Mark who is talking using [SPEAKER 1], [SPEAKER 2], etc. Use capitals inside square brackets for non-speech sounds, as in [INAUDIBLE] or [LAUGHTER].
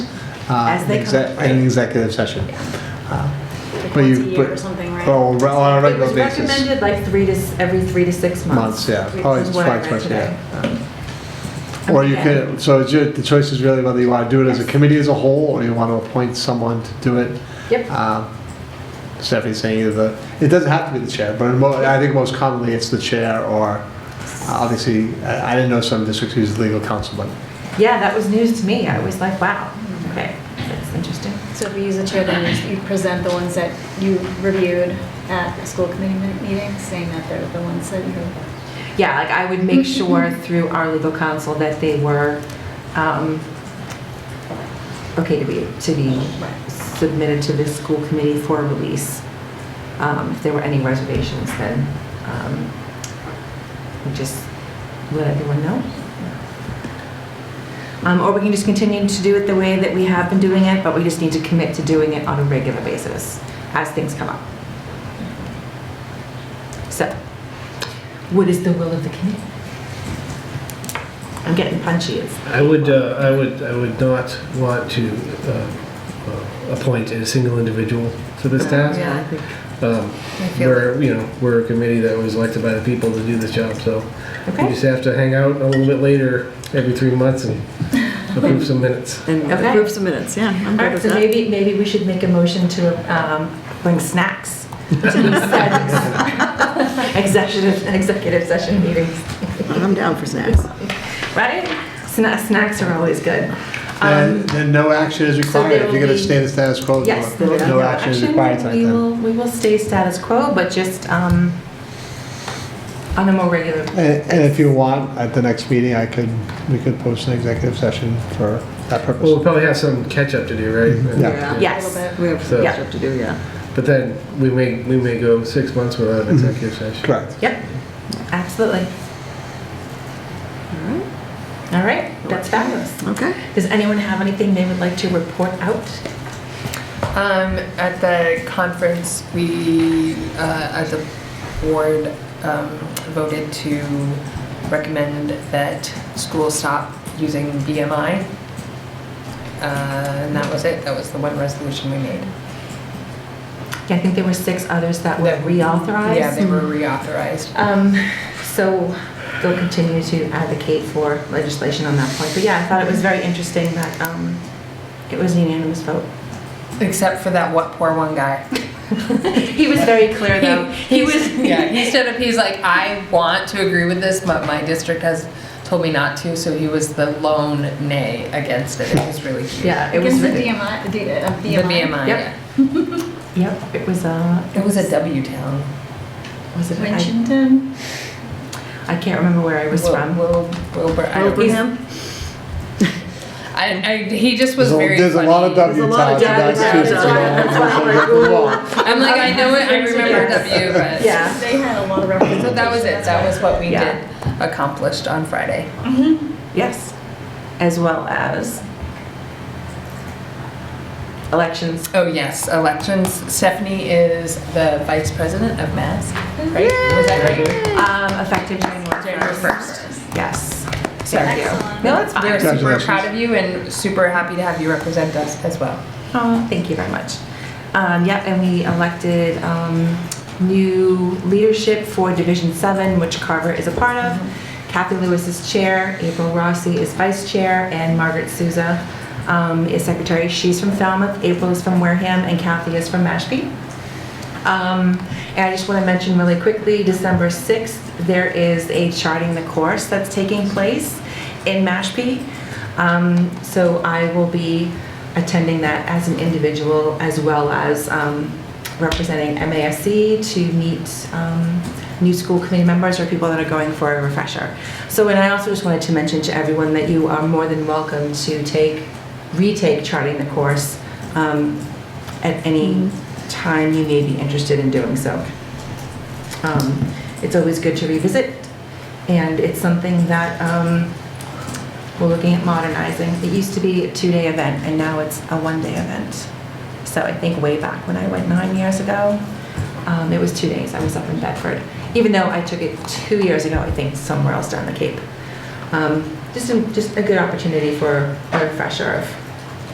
[SPEAKER 1] uh,
[SPEAKER 2] As they
[SPEAKER 1] an exec-
[SPEAKER 2] come up.
[SPEAKER 1] in an executive session. Uh,
[SPEAKER 3] Like
[SPEAKER 1] but
[SPEAKER 3] once
[SPEAKER 1] you-
[SPEAKER 3] a year
[SPEAKER 1] but-
[SPEAKER 3] or something, right?
[SPEAKER 1] Oh, re- on a
[SPEAKER 2] It was
[SPEAKER 1] regular basis.
[SPEAKER 2] recommended like three to, s- every three to six months.
[SPEAKER 1] Months, yeah.
[SPEAKER 2] which
[SPEAKER 1] Probably
[SPEAKER 2] is
[SPEAKER 1] it's
[SPEAKER 2] what I
[SPEAKER 1] probably
[SPEAKER 2] read
[SPEAKER 1] twice a
[SPEAKER 2] today.
[SPEAKER 1] year.
[SPEAKER 2] Um,
[SPEAKER 1] Or you
[SPEAKER 2] okay.
[SPEAKER 1] could, so it's your, the choice is really whether you want to do it as a
[SPEAKER 2] Yes.
[SPEAKER 1] committee as a whole, or you want to appoint someone to do it.
[SPEAKER 2] Yep,
[SPEAKER 1] Um, Stephanie's saying either, the- it doesn't have to be the chair, but in mo- I think most commonly it's the chair or, uh, obviously, I I didn't know some districts use legal counsel, but
[SPEAKER 2] yeah, that was news to me. I was like, wow, okay, that's interesting.
[SPEAKER 3] So if you use the chair, then you you present the ones that you reviewed at the school committee mi- meeting, saying that they're the ones that you,
[SPEAKER 2] Yeah, like I would make sure through our legal counsel that they were um, okay to be, to be submitted to this school committee for release. Um, If there were any reservations, then um, we just let everyone know. Um, Or we can just continue to do it the way that we have been doing it, but we just need to commit to doing it on a regular basis as things come up. So, what is the will of the committee? I'm getting punchy. It's
[SPEAKER 4] I would, uh, I would, I would not want to uh, uh, appoint a single individual to this task.
[SPEAKER 3] Yeah.
[SPEAKER 4] Um,
[SPEAKER 3] I feel.
[SPEAKER 4] We're, you know, we're a committee that was elected by the people to do this job, so we
[SPEAKER 2] Okay.
[SPEAKER 4] just have to hang out a little bit later every three
[SPEAKER 3] [LAUGHS]
[SPEAKER 4] months and approve some minutes.
[SPEAKER 5] And
[SPEAKER 2] Okay.
[SPEAKER 5] approve some minutes, yeah, I'm
[SPEAKER 2] All
[SPEAKER 5] good
[SPEAKER 2] right,
[SPEAKER 5] with
[SPEAKER 2] so
[SPEAKER 5] that.
[SPEAKER 2] maybe, maybe we should make a motion to um, bring snacks
[SPEAKER 1] [LAUGHS]
[SPEAKER 2] to these sessions. executive, executive session meetings,
[SPEAKER 5] I'm down for snacks.
[SPEAKER 2] right? Sna- Snacks are always good. Um,
[SPEAKER 1] then, then no action is required.
[SPEAKER 2] there
[SPEAKER 1] If you're going
[SPEAKER 2] will
[SPEAKER 1] to
[SPEAKER 2] be-
[SPEAKER 1] stay in the status quo,
[SPEAKER 2] Yes,
[SPEAKER 1] no
[SPEAKER 2] there is
[SPEAKER 1] Oh, no action is required tonight
[SPEAKER 2] We
[SPEAKER 1] then.
[SPEAKER 2] will, we will stay status quo, but just um, on a more regular,
[SPEAKER 1] And and if you want, at the next meeting, I could, we could post an executive session for that
[SPEAKER 4] Well, we'll
[SPEAKER 1] purpose.
[SPEAKER 4] probably have some catch-up to do, right?
[SPEAKER 5] Yeah.
[SPEAKER 3] A
[SPEAKER 4] Yeah.
[SPEAKER 3] little
[SPEAKER 2] yes.
[SPEAKER 3] bit.
[SPEAKER 5] We have
[SPEAKER 4] So-
[SPEAKER 5] some stuff to do, yeah.
[SPEAKER 4] But then we may, we may go six months without an executive session.
[SPEAKER 1] Correct.
[SPEAKER 2] Yep, absolutely.
[SPEAKER 6] Hmm.
[SPEAKER 2] All right, that's fabulous.
[SPEAKER 5] Okay.
[SPEAKER 2] Does anyone have anything they would like to report out?
[SPEAKER 6] Um, at the conference, we, uh, as a board, um, voted to recommend that schools stop using BMI. Uh, and that was it, that was the one resolution we made.
[SPEAKER 2] Yeah, I think there were six others that were
[SPEAKER 6] That- Yeah,
[SPEAKER 2] reauthorized.
[SPEAKER 6] they were reauthorized.
[SPEAKER 2] Um, So they'll continue to advocate for legislation on that point. But yeah, I thought it was very interesting that um, it was a unanimous vote. [LAUGHS]
[SPEAKER 6] Except for that what poor one [LAUGHS] guy.
[SPEAKER 2] He was very clear, though. He was,
[SPEAKER 6] Yeah, he stood up, he's like, I want to agree with this, but my district has told me not to, so he was the lone nay against it. It was really cute.
[SPEAKER 2] yeah, it
[SPEAKER 3] Against
[SPEAKER 2] was,
[SPEAKER 3] the
[SPEAKER 2] yep,
[SPEAKER 3] DMI, the D- uh,
[SPEAKER 6] The
[SPEAKER 3] BMI.
[SPEAKER 6] BMI,
[SPEAKER 2] Yep.
[SPEAKER 6] yeah.
[SPEAKER 2] it was, uh,
[SPEAKER 6] It was a W town.
[SPEAKER 2] was it, I
[SPEAKER 3] Winchton,
[SPEAKER 2] I can't remember where I was
[SPEAKER 6] Wil-
[SPEAKER 2] from.
[SPEAKER 6] Wil- Wilbur. I don't-
[SPEAKER 5] Wilbraham?
[SPEAKER 6] I, I, he just
[SPEAKER 1] There's
[SPEAKER 6] was
[SPEAKER 1] a-
[SPEAKER 6] very
[SPEAKER 1] There's a lot of
[SPEAKER 6] funny.
[SPEAKER 1] W's
[SPEAKER 5] There's a lot
[SPEAKER 1] out
[SPEAKER 5] of
[SPEAKER 1] there.
[SPEAKER 5] W's
[SPEAKER 1] That's
[SPEAKER 5] out
[SPEAKER 1] true.
[SPEAKER 5] there.
[SPEAKER 1] It's a lot of-
[SPEAKER 2] That's why I'm like,
[SPEAKER 1] it's a lot.
[SPEAKER 6] I'm like, I know it, I remember
[SPEAKER 2] Yes.
[SPEAKER 6] W, but.
[SPEAKER 2] Yeah.
[SPEAKER 3] they had a lot of references.
[SPEAKER 6] So that was it. That was what we
[SPEAKER 2] Yeah.
[SPEAKER 6] did accomplished on Friday.
[SPEAKER 2] Yes, as well as elections.
[SPEAKER 6] Oh, yes, elections. Stephanie is the vice president of Mass, right? Was that right?
[SPEAKER 2] Um, effective January
[SPEAKER 6] January
[SPEAKER 2] first.
[SPEAKER 6] first.
[SPEAKER 2] Yes.
[SPEAKER 6] Sorry.
[SPEAKER 2] Thank you.
[SPEAKER 3] Excellent.
[SPEAKER 2] No, it's
[SPEAKER 6] We're
[SPEAKER 2] fine.
[SPEAKER 6] super
[SPEAKER 1] Congratulations.
[SPEAKER 6] proud of you and super happy to have you represent us as well.
[SPEAKER 2] Oh, thank you very much. Um, yep, and we elected, um, new leadership for Division Seven, which Carver is a part of. Kathy Lewis is chair, April Rossi is vice chair, and Margaret Souza, um, is secretary. She's from Falmouth, April is from Wareham, and Kathy is from Mashpee. Um, And I just want to mention really quickly, December 6th, there is a charting the course that's taking place in Mashpee. Um, So I will be attending that as an individual as well as um, representing MASC to meet um, new school committee members or people that are going for a refresher. So, and I also just wanted to mention to everyone that you are more than welcome to take, retake charting the course um, at any time you may be interested in doing so. Um, It's always good to revisit, and it's something that um, we're looking at modernizing. It used to be a two-day event, and now it's a one-day event. So I think way back when I went nine years ago, um, it was two days. I was up in Bedford, even though I took it two years ago, I think, somewhere else down the Cape. Um, Just, a- just a good opportunity for a refresher of